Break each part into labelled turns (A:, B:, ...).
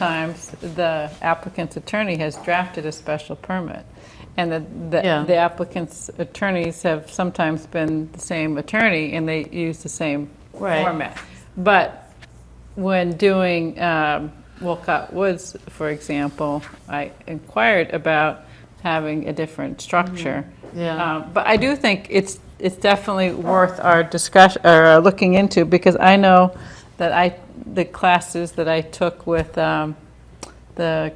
A: times the applicant's attorney has drafted a special permit. And the,
B: Yeah.
A: the the applicant's attorneys have sometimes been the same attorney and they use the same
B: Right.
A: format. But when doing um, Wolcott Woods, for example, I inquired about having a different
B: Mm-hmm.
A: structure.
B: Yeah.
A: Um, But I do think it's, it's definitely worth our discussion, or uh, looking into, because I know that I, the classes that I took with um, the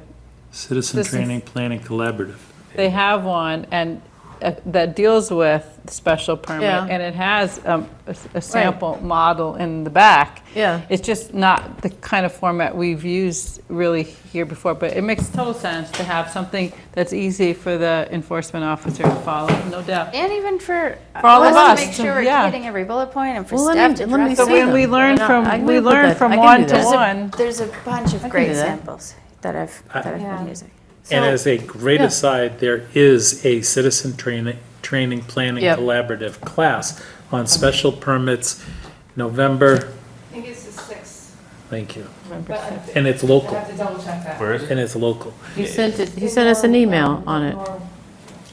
C: Citizen
A: Citizen-
C: Training Planning Collaborative.
A: They have one and uh, that deals with special permit,
B: Yeah.
A: and it has um, a s- a sample model in the back.
B: Yeah.
A: It's just not the kind of format we've used really here before, but it makes total sense to have something that's easy for the enforcement officer to follow, no doubt.
D: And even for,
A: For all of
D: us to
A: us,
D: make sure we're
A: yeah.
D: hitting every bullet point and for
B: Well, let
D: staff
B: me-
D: to
B: let me
D: draft.
A: But
B: see
A: when
B: them.
A: we learn
B: Yeah, I
A: from,
B: can
A: we
B: put
A: learn
B: that- I
A: from
B: can do
A: one to
B: that.
A: one.
D: There's a bunch of
B: do
D: great
B: that.
D: samples that I've, that I've been using.
C: And as a great aside, there is a Citizen Training, Training Planning
B: Yep.
C: Collaborative class on special permits, November,
E: I think it's the sixth,
C: thank you.
E: but I
C: And it's
E: I
C: local,
E: have to double check that.
F: Where is it?
C: and it's local.
B: He sent it, he sent us an email on it.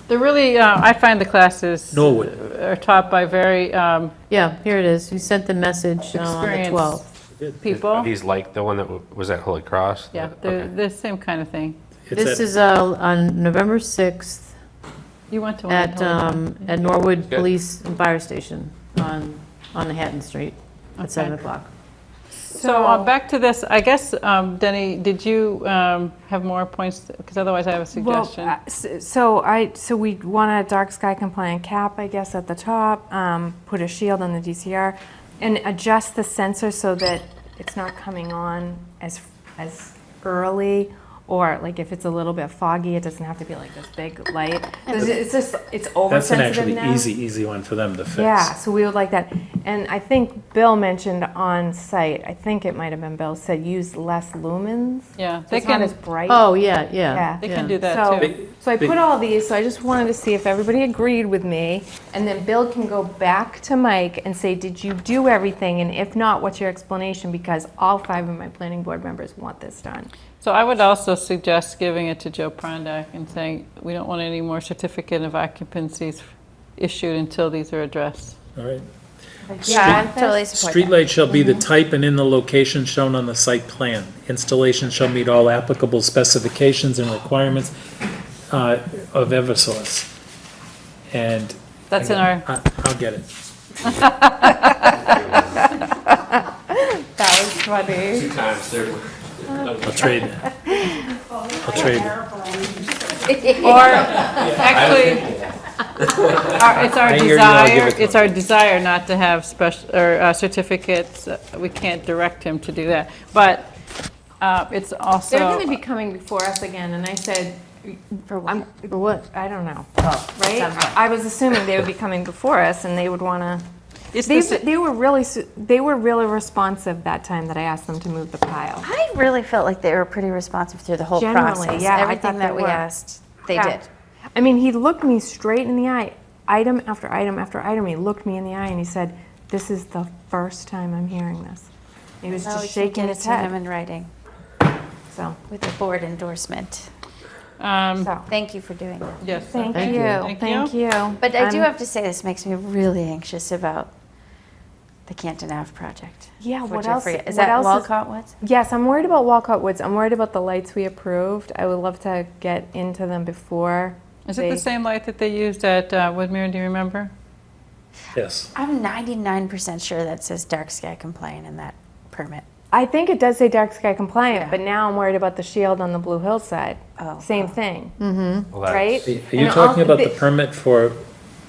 A: They're really, uh, I find the classes
C: Norwood,
A: are taught by very um,
B: Yeah, here it is. He sent the message uh, on the 12th.
A: experienced people.
F: Are these like the one that w- was at Holy Cross?
A: Yeah, they're
F: Okay.
A: the same kind of thing.
C: it's
B: This
C: at
B: is uh, on November 6th
A: You went to one.
B: at,
A: Hillary.
B: um, at Norwood
F: Good.
B: Police and Fire Station on, on Hatton Street at 7 o'clock.
A: So uh, back to this, I guess, um, Denny, did you um, have more points? Because otherwise I have a
G: Well,
A: suggestion.
G: uh, s- so I, so we want a dark sky compliant cap, I guess, at the top, um, put a shield on the DCR, and adjust the sensor so that it's not coming on as, as early, or like if it's a little bit foggy, it doesn't have to be like this big light. It's it's just, it's
C: That's an
G: oversensitive
C: actually
G: now.
C: easy, easy one for them to fix.
G: Yeah, so we would like that. And I think Bill mentioned on site, I think it might have been Bill, said use less lumens.
A: Yeah,
G: So
A: they
G: it's not
A: can,
G: as bright.
B: Oh, yeah, yeah.
G: Yeah.
A: they can
B: yeah.
A: do that
G: So,
A: too.
G: so I
C: They-
G: put all these, so I just wanted to see if everybody agreed with me, and then Bill can go back to Mike and say, did you do everything, and if not, what's your explanation, because all five of my planning board members want this done.
A: So I would also suggest giving it to Joe Prondak and saying, we don't want any more certificate of occupancies issued until these are addressed.
C: All right.
D: Yeah, I totally support that.
C: Streetlight shall
G: Mm-hmm.
C: be the type and in the location shown on the site plan. Installation shall meet all applicable specifications and requirements uh, of Eversource. And.
A: That's in our,
C: I- I'll get it.
G: That was funny.
F: Two times, they're-
C: I'll trade it. I'll trade it.
A: or actually, our- it's our
C: I hear you, I'll give
A: desire,
C: it to
A: it's our desire not to have special, or uh, certificates. Uh, We can't direct him to do that. But uh, it's also.
G: They're gonna be coming before us again, and I said,
D: For what?
G: I'm,
B: For what?
G: I don't know,
D: Right?
G: right? I was assuming they would be coming before us, and they would wanna,
A: It's
G: they,
A: the si-
G: they were really, su- they were really responsive that time that I asked them to move the pile.
D: I really felt like they were pretty responsive through the whole
G: Generally,
D: process.
G: yeah, I
D: Everything
G: thought
D: that
G: they
D: we
G: were.
D: asked, they
G: Yeah.
D: did.
G: I mean, he looked me straight in the eye, item after item after item. He looked me in the eye and he said, "This is the first time I'm hearing this." He was
D: Now we
G: just
D: can
G: shaking
D: get it
G: his
D: to him
G: head.
D: in writing
G: So,
D: with a board endorsement.
A: um,
G: so
D: Thank you for doing that.
A: Yes.
G: thank,
B: Thank
G: you,
B: you.
A: Thank
G: thank you.
D: But I do
G: I'm-
D: have to say, this makes me really anxious about the Canton Ave project.
G: Yeah,
D: for
G: what else-
D: Jeffrey. Is
G: what
D: that
G: else is-
D: Walcott Woods?
G: Yes, I'm worried about Walcott Woods. I'm worried about the lights we approved. I would love to get into them before.
A: Is it the
G: they-
A: same light that they used at uh, Woodmere, do you remember?
C: Yes.
D: I'm 99% sure that says dark sky compliant in that permit.
G: I think it does say dark sky compliant, but now I'm worried about the shield on the Blue Hill side.
D: Oh,
G: same thing,
F: Well, that's-
G: right?
C: Are you
G: And
C: talking
G: all-
C: about the permit for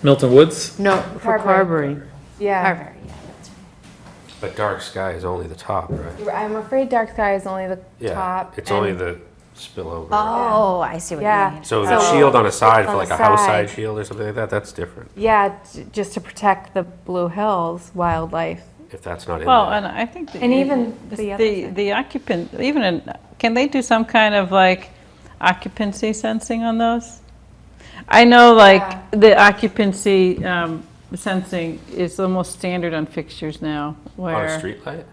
C: Milton Woods?
B: No, for
G: Carberry.
B: Carberry.
G: yeah.
D: Carver, yeah, that's right.
F: But dark sky is only the top, right?
G: I'm afraid dark sky is only the
F: Yeah,
G: top.
F: it's only
G: and-
F: the spillover.
D: Oh, I see what
G: Yeah.
D: you mean.
F: So the
G: So-
F: shield on a side, for
G: On
F: like
G: the
F: a house side
G: side.
F: shield or something like that, that's different,
G: Yeah, j- just to protect the Blue Hills wildlife.
F: if that's not in
A: Well,
F: there.
A: and I think. that
G: And
A: you-
G: even the other
A: The,
G: side.
A: the occupant, even, in- can they do some kind of like occupancy sensing on those? I know
G: Yeah.
A: like the occupancy um, sensing is almost standard on fixtures now
F: On a
A: where.
F: streetlight?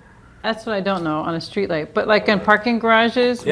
A: That's what I don't know on a streetlight, but like in parking garages